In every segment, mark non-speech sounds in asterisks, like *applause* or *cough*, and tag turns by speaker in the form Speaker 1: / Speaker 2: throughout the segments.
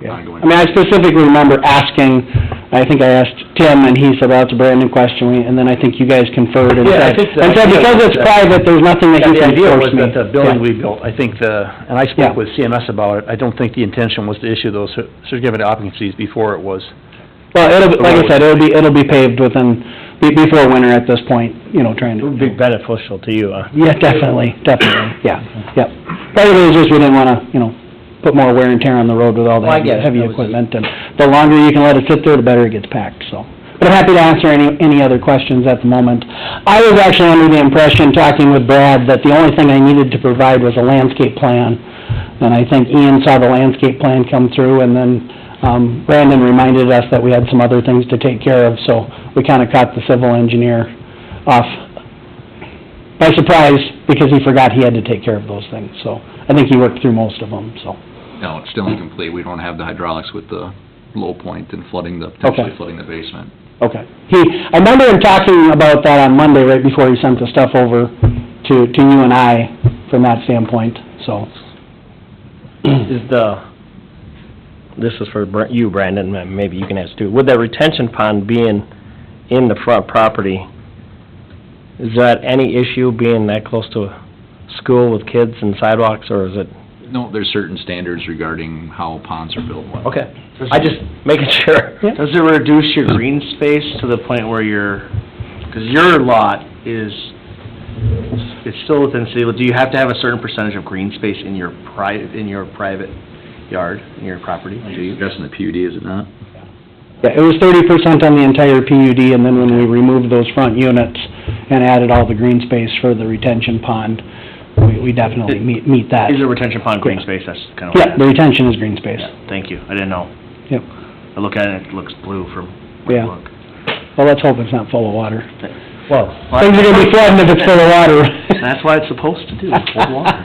Speaker 1: Yeah.
Speaker 2: ongoing.
Speaker 1: I mean, I specifically remember asking, I think I asked Tim, and he said, well, it's a brand new question, we- and then I think you guys conferred and
Speaker 3: Yeah, I
Speaker 1: said,
Speaker 3: think the
Speaker 1: and said,
Speaker 3: idea
Speaker 1: because
Speaker 3: was
Speaker 1: it's
Speaker 3: that-
Speaker 1: private, there's nothing that
Speaker 3: Yeah,
Speaker 1: you
Speaker 3: the
Speaker 1: can
Speaker 3: idea was
Speaker 1: force me.
Speaker 3: that the building
Speaker 1: Yeah.
Speaker 3: we built, I think the, and I
Speaker 1: Yeah.
Speaker 3: spoke with CMS about it, I don't think the intention was to issue those cer- certificate of occupancies before it was.
Speaker 1: Well, it'll, be- like I said, it'll be, it'll be paved within, be- before winter at this point, you know, trying to.
Speaker 3: beneficial to you,
Speaker 4: uh.
Speaker 3: huh?
Speaker 1: Yeah, definitely, definitely, yeah, yep. Part of it is just we didn't wanna, you know, put more wear and tear on the road with all the
Speaker 4: Well, I get it.
Speaker 1: heavy
Speaker 4: That was-
Speaker 1: equipment, and the longer you can let it sit there, the better it gets packed, so. But I'm happy to answer any, any other questions at the moment. I was actually under the impression, talking with Brad, that the only thing I needed to provide was a landscape plan. And I think Ian saw the landscape plan come through, and then, um, Brandon reminded us that we had some other things to take care of, so we kinda caught the civil engineer off, by surprise, because he forgot he had to take care of those things, so I think he worked through most of them, so.
Speaker 2: No, it's still incomplete. We don't have the hydraulics with the low point and flooding the, potentially flooding the basement.
Speaker 1: Okay. He, I remember him talking about that on Monday, right before he sent the stuff over to, to you and I, from that standpoint, so.
Speaker 4: *clears throat* Is the, this is for Br- you, Brandon, and maybe you can ask too. With that retention pond being in the front property, is that any issue being that close to a school with kids and sidewalks, or is it?
Speaker 2: No, there's certain standards regarding how ponds are built.
Speaker 4: Okay, I just making sure.
Speaker 1: Yeah.
Speaker 5: Does it reduce your green space to the point where you're, because your lot is, it's still within city, do you have to have a certain percentage of green space in your private, in your private yard, in your property? Do
Speaker 2: You're
Speaker 5: you?
Speaker 2: addressing the PUD, is it not?
Speaker 1: Yeah, it was thirty percent on the entire PUD, and then when we removed those front units and added all the green space for the retention pond, we, we definitely meet, meet that.
Speaker 5: Is a retention pond green
Speaker 1: Yeah.
Speaker 5: space? That's kind of what I
Speaker 1: Yeah, the retention is green space.
Speaker 5: asked. Thank you, I didn't know.
Speaker 1: Yep.
Speaker 5: I look at it, it looks blue from where
Speaker 1: Yeah.
Speaker 5: I look.
Speaker 1: Well, let's hope it's not full of water.
Speaker 4: Well,
Speaker 1: Things are gonna be flooding if it's full of water. *laughs*
Speaker 5: That's what it's supposed to do, hold water.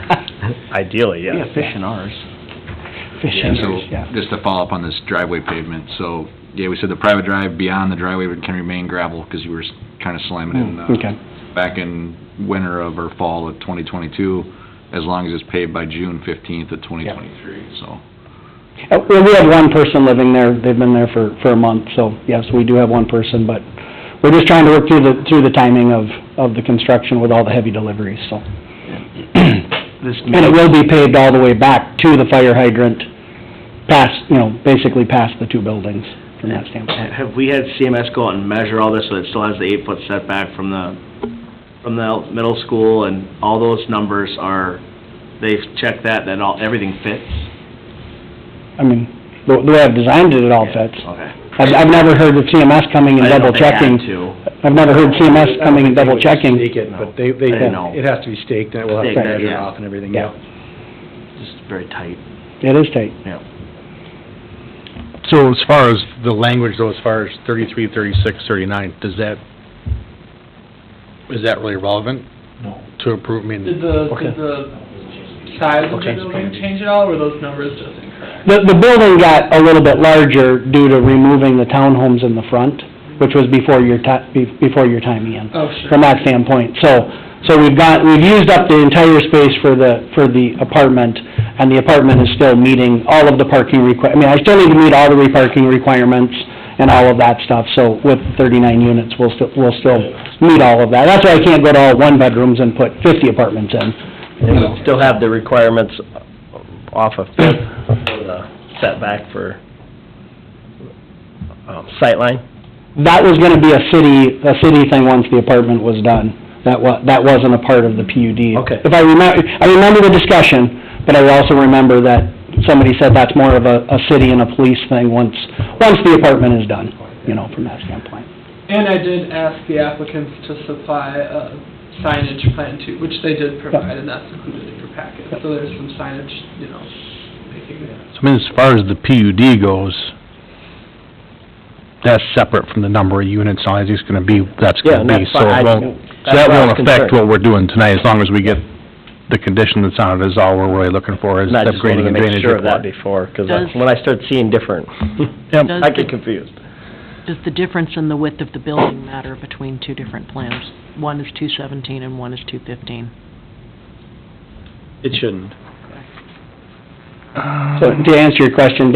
Speaker 4: ideally,
Speaker 5: Yeah,
Speaker 4: yes.
Speaker 5: fish in ours.
Speaker 1: Fishing,
Speaker 2: So,
Speaker 1: yeah.
Speaker 2: just to follow up on this driveway pavement, so, yeah, we said the private drive beyond the driveway would- can remain gravel, because you were kind of slamming in,
Speaker 1: Mm, Okay,
Speaker 2: uh, back in winter of or fall of 2022, as long as it's paved by June 15th of 2023, so.
Speaker 1: Uh, well, we have one person living there, they've been there for, for a month, so yes, we do have one person, but we're just trying to work through the, through the timing of, of the construction with all the heavy deliveries, so.
Speaker 5: This
Speaker 1: And
Speaker 5: may,
Speaker 1: it will be paved all the way back to the fire hydrant, past, you know, basically past the two buildings from that standpoint.
Speaker 5: have we had CMS go out and measure all this, so it still has the eight-foot setback from the, from the middle school, and all those numbers are, they've checked that, that all, everything fits?
Speaker 1: I mean, the, the way I've designed it, it all fits.
Speaker 5: Okay.
Speaker 1: I've, I've never heard of CMS coming and
Speaker 5: I
Speaker 1: double
Speaker 5: didn't know if they had
Speaker 1: checking.
Speaker 5: to.
Speaker 1: I've never heard CMS coming and double checking.
Speaker 3: Stake it, but they, they,
Speaker 5: I didn't know.
Speaker 3: it has to be staked, and it will have to
Speaker 5: Staked,
Speaker 3: measure
Speaker 5: yeah.
Speaker 3: off and everything,
Speaker 1: Yeah.
Speaker 3: yeah.
Speaker 5: Just very tight.
Speaker 1: It is tight.
Speaker 3: So as far as the language though, as far as thirty-three, thirty-six, thirty-nine, does that, is that really relevant?
Speaker 6: No.
Speaker 3: To approve, I mean,
Speaker 6: Did the, did the size of the building change at all, or were those numbers just incorrect?
Speaker 1: The, the building got a little bit larger due to removing the townhomes in the front, which was before your ti, be- before your time, Ian,
Speaker 6: Oh,
Speaker 1: from that standpoint. So, so we've got, we've used up the entire space for the, for the apartment, and the apartment is still meeting all of the parking requi, I mean, I still need to meet all the re-parking requirements and all of that stuff, so with thirty-nine units, we'll still, we'll still meet all of that. That's why I can't go to all one-bedrooms and put fifty apartments in.
Speaker 4: It would still have the requirements off of Fifth, for the setback for, um, sightline?
Speaker 1: That was gonna be a city, a city thing once the apartment was done. That wa, that wasn't a part of the PUD.
Speaker 4: Okay.
Speaker 1: If I remember, I remember the discussion, but I also remember that somebody said that's more of a, a city and a police thing once, once the apartment is done, you know, from that standpoint.
Speaker 6: And I did ask the applicants to supply a signage plan too, which they did provide, and that's included in your packet. So there's some signage, you know, making it.
Speaker 7: I mean, as far as the PUD goes, that's separate from the number of units, all it's gonna be, that's
Speaker 4: Yeah,
Speaker 7: gonna
Speaker 4: and
Speaker 7: be,
Speaker 4: that's
Speaker 7: so
Speaker 4: fine, I-
Speaker 7: it won't,
Speaker 4: that's
Speaker 7: so that
Speaker 4: why I
Speaker 7: won't
Speaker 4: was
Speaker 7: affect
Speaker 4: concerned.
Speaker 7: what we're doing tonight, as long as we get the condition that's on it is all we're really looking for, is
Speaker 4: And I just wanted
Speaker 7: upgrading
Speaker 4: to
Speaker 7: and
Speaker 4: make
Speaker 7: drainage
Speaker 4: sure of that
Speaker 7: report.
Speaker 4: before, because
Speaker 8: Does-
Speaker 4: when I start seeing different,
Speaker 7: Yep.
Speaker 8: Does
Speaker 4: I get
Speaker 8: the-
Speaker 4: confused.
Speaker 8: Does the difference in the width of the building matter between two different plans? One is two seventeen and one is two fifteen.
Speaker 4: It shouldn't.
Speaker 1: So to answer your question,